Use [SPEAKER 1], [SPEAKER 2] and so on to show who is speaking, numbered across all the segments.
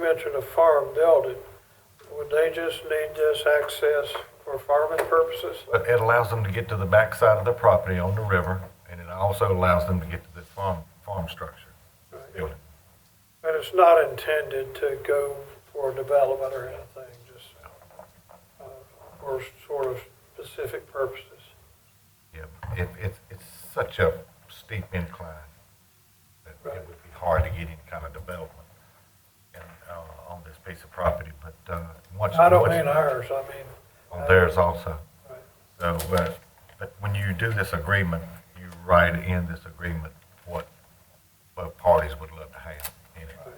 [SPEAKER 1] mentioned a farm building. Would they just need this access for farming purposes?
[SPEAKER 2] But it allows them to get to the backside of the property on the river, and it also allows them to get to the farm, farm structure, building.
[SPEAKER 1] But it's not intended to go for development or anything, just uh, for sort of specific purposes.
[SPEAKER 2] Yeah, it, it, it's such a steep incline that it
[SPEAKER 1] Right.
[SPEAKER 2] would be hard to get any kind of development in, uh, on this piece of property, but, uh, once.
[SPEAKER 1] I don't
[SPEAKER 2] once-
[SPEAKER 1] mean ours, I mean,
[SPEAKER 2] on theirs also.
[SPEAKER 1] Right.
[SPEAKER 2] So, but, but when you do this agreement, you write in this agreement what both parties would love to have in it.
[SPEAKER 1] Right.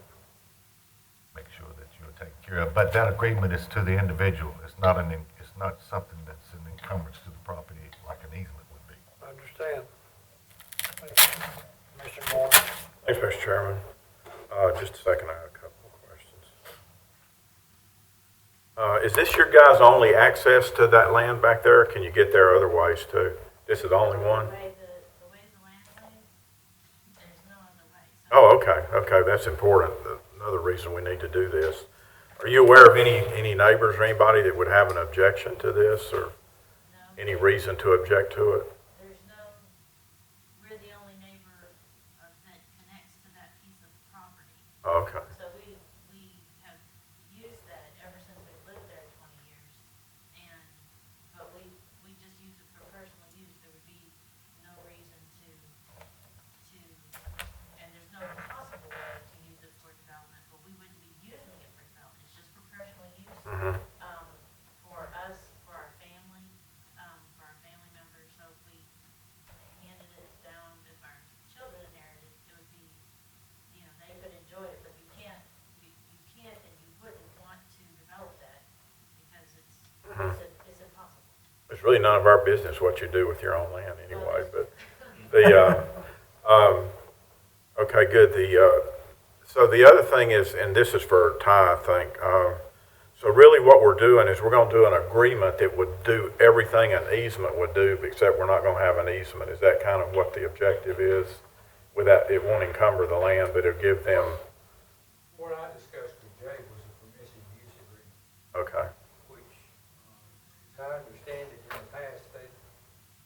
[SPEAKER 2] Make sure that you're taken care of, but that agreement is to the individual, it's not an, en- it's not something that's an encumbrance to the property like an easement would be.
[SPEAKER 1] I understand.
[SPEAKER 3] Mr. Moore?
[SPEAKER 4] Thanks, Mr. Chairman. Uh, Just a second, I have a couple of questions. Uh, Is this your guys' only access to that land back there? or Can you get there otherwise too? This is the only one?
[SPEAKER 5] The way the, the way the land lays, there's no other way. So
[SPEAKER 4] Oh, okay, okay, that's important. Another reason we need to do this. Are you aware of any, any neighbors or anybody that would have an objection to this or
[SPEAKER 5] no,
[SPEAKER 4] any reason to object to it?
[SPEAKER 5] there's no, we're the only neighbor of, that connects to that piece of property.
[SPEAKER 4] Okay,
[SPEAKER 5] So we, we have used that ever since we've lived there twenty years. And, but we, we just use it for personal use. There would be no reason to, to, and there's no possible way to use it for development, but we wouldn't be using it for development. It's just for personal use.
[SPEAKER 4] mhm,
[SPEAKER 5] um, for us, for our family, um, for our family members, so if we handed it down, if our children inherited, it would be, you know, they could enjoy it, but you can't, you, you can't and you wouldn't want to develop that because it's,
[SPEAKER 4] mhm.
[SPEAKER 5] it's, it's impossible.
[SPEAKER 4] It's really none of our business what you do with your own land anyway, but The, uh, um, okay, good, the, uh, so the other thing is, and this is for Ty, I think, um, so really what we're doing is we're gonna do an agreement that would do everything an easement would do, except we're not gonna have an easement, is that kind of what the objective is? Without, it won't encumber the land, but it'll give them,
[SPEAKER 3] What I discussed with Jay was a permissive use agreement,
[SPEAKER 4] okay,
[SPEAKER 3] which, uh, as I understand it, in the past, they,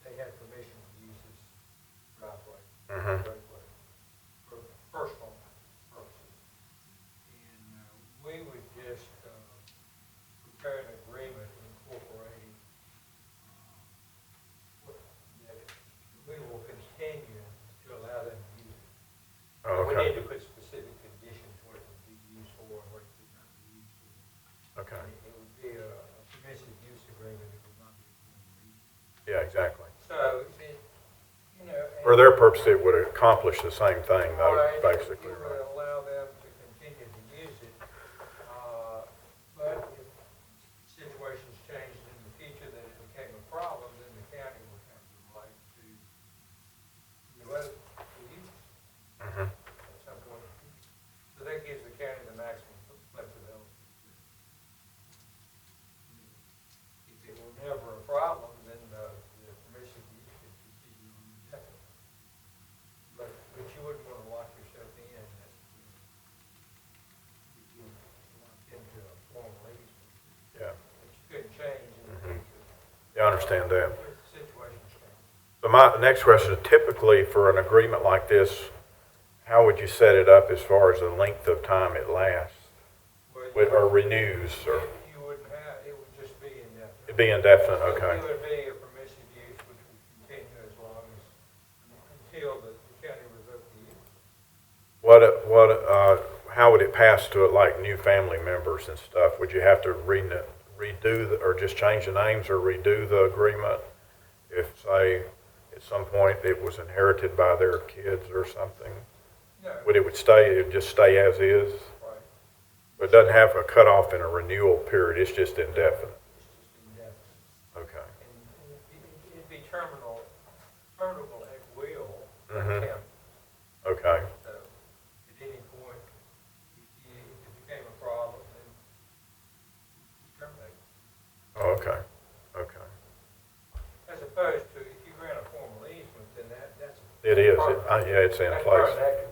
[SPEAKER 3] they had permission to use this driveway,
[SPEAKER 4] Mhm.
[SPEAKER 3] roadway, for personal purposes. And uh, we would just uh, prepare an agreement incorporating uh, what- that we will continue to allow them to use it.
[SPEAKER 4] Oh,
[SPEAKER 3] We need
[SPEAKER 4] okay,
[SPEAKER 3] to put specific conditions, what it would be used for and what it would not be used for.
[SPEAKER 4] okay,
[SPEAKER 3] It- It would be a a permissive use agreement, it would not be. a permissive use.
[SPEAKER 4] yeah, exactly.
[SPEAKER 3] So, it, you know. and-
[SPEAKER 4] For their purpose, it would accomplish the same thing though,
[SPEAKER 3] Right,
[SPEAKER 4] basically,
[SPEAKER 3] You
[SPEAKER 4] right?
[SPEAKER 3] would allow them to continue to use it, uh, but if situations changed in the future that it became a problem, then the county would have the right to, to let it to use it
[SPEAKER 4] Mhm.
[SPEAKER 3] at some point. in the future. So that gives the county the maximum flexibility. If it were never a problem, then the, the permission to use could continue on indefinitely. But, but you wouldn't want to lock yourself in that you you locked into a formal easement,
[SPEAKER 4] Yeah,
[SPEAKER 3] which could change in the
[SPEAKER 4] Mhm.
[SPEAKER 3] future.
[SPEAKER 4] yeah, I understand that.
[SPEAKER 3] If the situation changes.
[SPEAKER 4] So my the next question, typically for an agreement like this, how would you set it up as far as the length of time it lasts?
[SPEAKER 3] Well, you
[SPEAKER 4] With- Or
[SPEAKER 3] would-
[SPEAKER 4] renews, or,
[SPEAKER 3] You wouldn't have, it would just be indefinite.
[SPEAKER 4] it'd be indefinite,
[SPEAKER 3] It
[SPEAKER 4] Uh, okay,
[SPEAKER 3] would be a permissive use, which would continue as long as, until the the county revoked the use.
[SPEAKER 4] what, uh, what, uh, how would it pass to like new family members and stuff? Would you have to rene- redo, the- or just change the names or redo the agreement? If, say, at some point it was inherited by their kids or something,
[SPEAKER 3] No,
[SPEAKER 4] would it would stay, it would just stay as is?
[SPEAKER 3] right,
[SPEAKER 4] It doesn't have a cutoff and a renewal period, it's just indefinite.
[SPEAKER 3] it's just indefinite.
[SPEAKER 4] Okay.
[SPEAKER 3] And and it'd be- it'd be terminal, terminable at will, by
[SPEAKER 4] Mhm.
[SPEAKER 3] county.
[SPEAKER 4] Okay.
[SPEAKER 3] So at any point, if you- if it became a problem, then terminate.
[SPEAKER 4] Oh, okay. Okay.
[SPEAKER 3] As opposed to if you grant a formal easement, then that, that's.
[SPEAKER 4] It is. It, I, yeah, it's in
[SPEAKER 3] that's
[SPEAKER 4] place.
[SPEAKER 3] permanent.